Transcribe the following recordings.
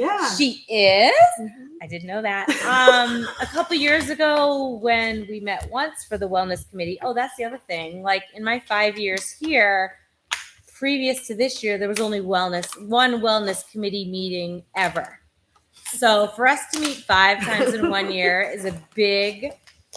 Yeah. She is. I didn't know that. Um, a couple years ago, when we met once for the wellness committee. Oh, that's the other thing. Like in my five years here, previous to this year, there was only wellness one wellness committee meeting ever. So for us to meet five times in one year is a big,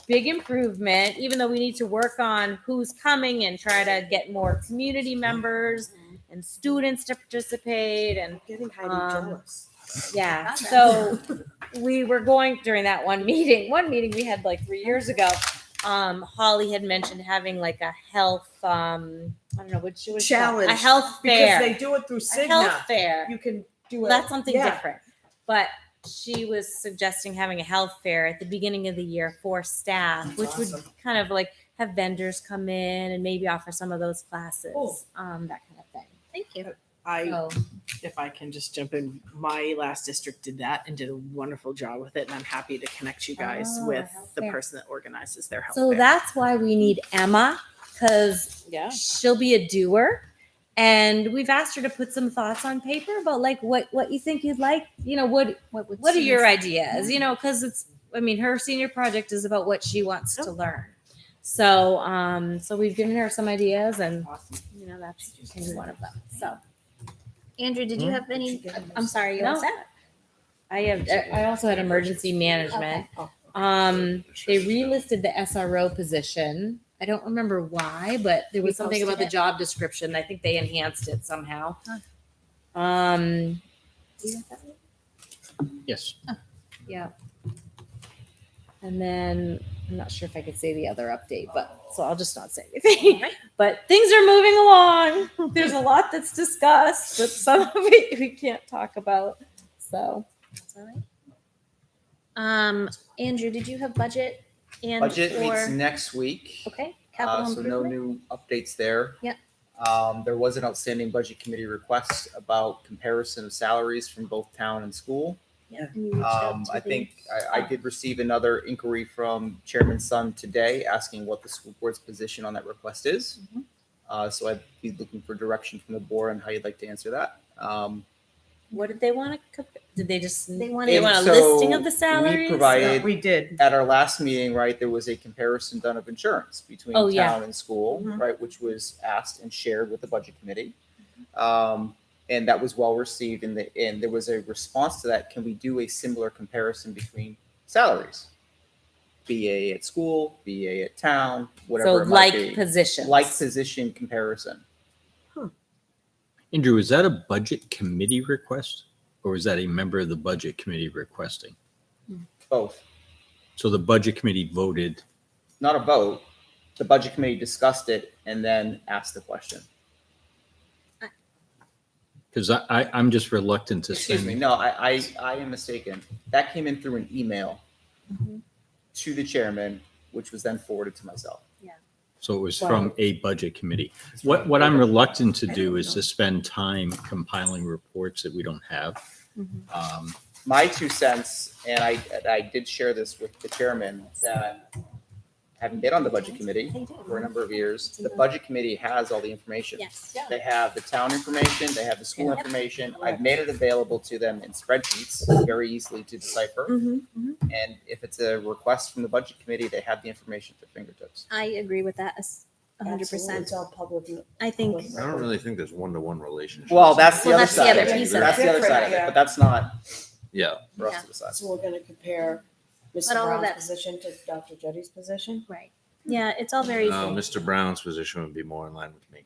big improvement. Even though we need to work on who's coming and try to get more community members and students to participate and Getting Heidi Um, jealous. yeah. Okay. So we were going during that one meeting. One meeting we had like three years ago. Um, Holly had mentioned having like a health. Um, I don't know what she was Challenge, a health Because fair. they do it through a health Cigna. fair. You can do it. Well, that's something yeah. different. But she was suggesting having a health fair at the beginning of the year for staff, That's which awesome. would kind of like have vendors come in and maybe offer some of those classes, Cool. um, that kind of thing. Thank you. I So if I can just jump in, my last district did that and did a wonderful job with it, and I'm happy to connect you guys Oh, with health the fair. person that organizes their health. So fair. that's why we need Emma because yeah, she'll be a doer. And we've asked her to put some thoughts on paper about like what what you think you'd like. You know what What, would what are you your ideas? You know because it's I mean her senior project is about what she wants to learn. So um so we've given her some ideas and awesome. you know that's maybe one of them. So Andrew, Hmm? did you have any? I'm sorry, you No. no. that? I have I also had emergency management. Oh, Um they relisted the SRO position. I don't remember why, but there was something Reposted about the it. job description. I think they enhanced it somehow. Huh. Um, Yes. yeah. And then I'm not sure if I could say the other update, but so I'll just not say anything. Alright. But things are moving along. There's a lot that's discussed, but some of it we can't talk about. So That's all right. Um, Andrew, did you have budget and Budget meets or next week. okay capital Uh, so no improvement? new updates there. Yep. Um, there was an outstanding budget committee request about comparison of salaries from both town and school. And you reached out Um, to I the- think I, I did receive another inquiry from Chairman Sun today asking what the school board's position on that request is. Mm-hmm. Uh, so I'd be looking for direction from the board on how you'd like to answer that. Um, what did they want to? Did they just they they, wanted If want a so, listing of the we salaries? provided- We did. at our last meeting, right, there was a comparison done of insurance between Oh, yeah. town and school, Mhm. right, which was asked and shared with the budget committee. Um, and that was well received and the, and there was a response to that. Can we do a similar comparison between salaries? BA at school, BA at town, so whatever it might like be. positions. Like position comparison. Andrew, is that a budget committee request or is that a member of the budget committee requesting? Both, So the budget committee voted. not a vote. The budget committee discussed it and then asked the question. Because I, I, I'm just reluctant to Excuse me, send. no, I, I, I am mistaken. That came in through an email Mhm. to the chairman, which was then forwarded to myself. So it was Wow. from a budget committee. What, what I'm reluctant to do is to spend time compiling reports that we don't have. Mhm. Mm-hmm. Um, My two cents, and I, and I did share this with the chairman, that having been on the budget committee for a number of years, the budget committee has all the information. Yes. They have the town information, they have the school Yep. information. I've made it available to them in spreadsheets, very easily to decipher. Mm-hmm. And if it's a request from the budget committee, they have the information at their fingertips. I agree with that. as a hundred Absolutely. percent. It's all public. I think I don't really think there's one-to-one relationship. Well, that's the Well, other that's the side. other of it. piece of That's it. the other side of it, Yeah. but that's not Yeah. for us Yeah. to decide. So we're gonna compare Mr. But all of Brown's that- position to Dr. Jetty's position? right. Yeah, it's all very No, Mr. Uh, Brown's position would be more in line with me.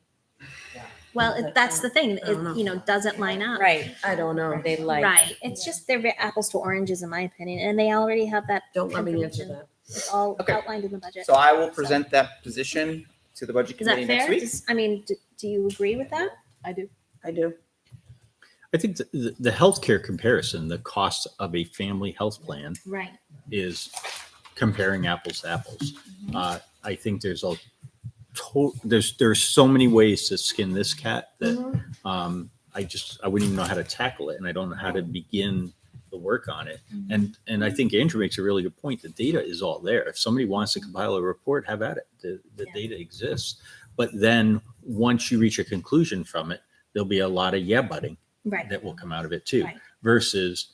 well. It, that's the thing. I don't know. It you know doesn't line up. right? I don't know. Or they like right. It's just they're ve- apples to oranges in my opinion, and they already have that. Don't let me answer information. that. It's all Okay. outlined in the budget. So I will present that position to the budget Is that committee next fair? week. Does- I mean, do, do you agree with that? I do. I do. I think the- the, the healthcare comparison, the cost of a family health plan Right. is comparing apples to apples. Mm-hmm. Uh, I think there's a to, there's, there's so many ways to skin this cat that Mm-hmm. um, I just, I wouldn't even know how to tackle it and I don't know how to begin the work on it. Mm-hmm. And, and I think Andrew makes a really good point. The data is all there. If somebody wants to compile a report, have at it. The, the Yeah. data exists. But then, once you reach a conclusion from it, there'll be a lot of yeah butting Right. that will come out of it too. Right. versus